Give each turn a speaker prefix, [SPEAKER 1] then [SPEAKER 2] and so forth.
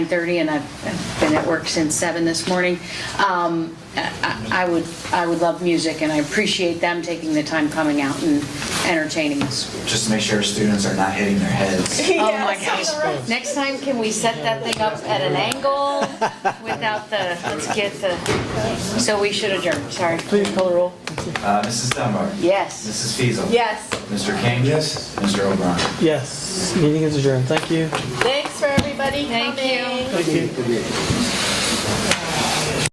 [SPEAKER 1] 9:30, and I've I've been at work since 7 this morning. Um, I I- I would, I would love music, and I appreciate them taking the time coming out and entertaining us.
[SPEAKER 2] just to make sure students are not hitting their heads.
[SPEAKER 1] Oh, my gosh. Next time, can we set that thing up at an angle without the, let's get the, so we should adjourn, sorry. Please call the roll.
[SPEAKER 2] Uh, Mrs. Dunbar.
[SPEAKER 1] Yes.
[SPEAKER 2] Mrs. Fiesel.
[SPEAKER 3] Yes.
[SPEAKER 2] Mr. King.
[SPEAKER 4] Yes.
[SPEAKER 2] Mr. O'Brien.
[SPEAKER 4] Yes, meeting is adjourned. Thank you.
[SPEAKER 3] Thanks for everybody
[SPEAKER 1] Thank you.
[SPEAKER 3] coming.
[SPEAKER 4] Thank you.